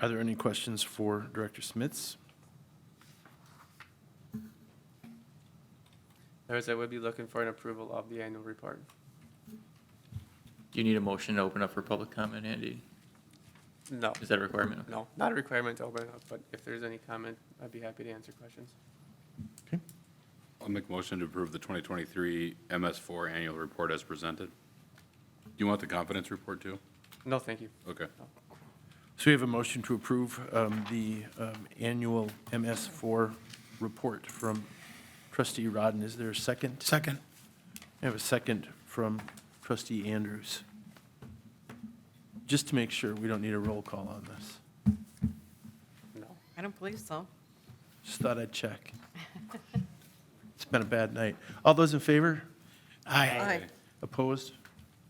Are there any questions for Director Smits? Otherwise, I would be looking for an approval of the annual report. Do you need a motion to open up for public comment, Andy? No, Is that a requirement? no, not a requirement to open it up, but if there's any comment, I'd be happy to answer questions. I'll make a motion to approve the 2023 MS4 annual report as presented. Do you want the confidence report too? No, thank you. Okay. So we have a motion to approve um, the um, annual MS4 report from trustee Rodden. Is there a second? Second. I have a second from trustee Andrews. Just to make sure, we don't need a roll call on this. No. I don't believe so. Just thought I'd check. It's been a bad night. All those in favor? Aye. Opposed?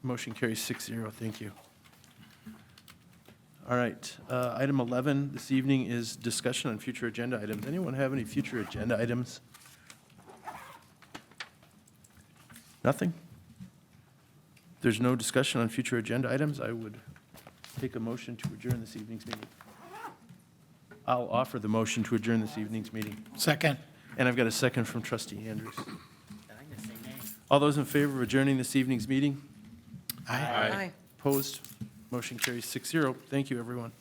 Motion carries six zero. Thank you. All right, uh, item 11 this evening is discussion on future agenda items. Anyone have any future agenda items? Nothing? If There's no discussion on future agenda items. I would take a motion to adjourn this evening's meeting. I'll offer the motion to adjourn this evening's meeting. Second. And I've got a second from trustee Andrews. All those in favor of adjourning this evening's meeting? Aye. Aye. Opposed? Motion carries six zero. Thank you, everyone.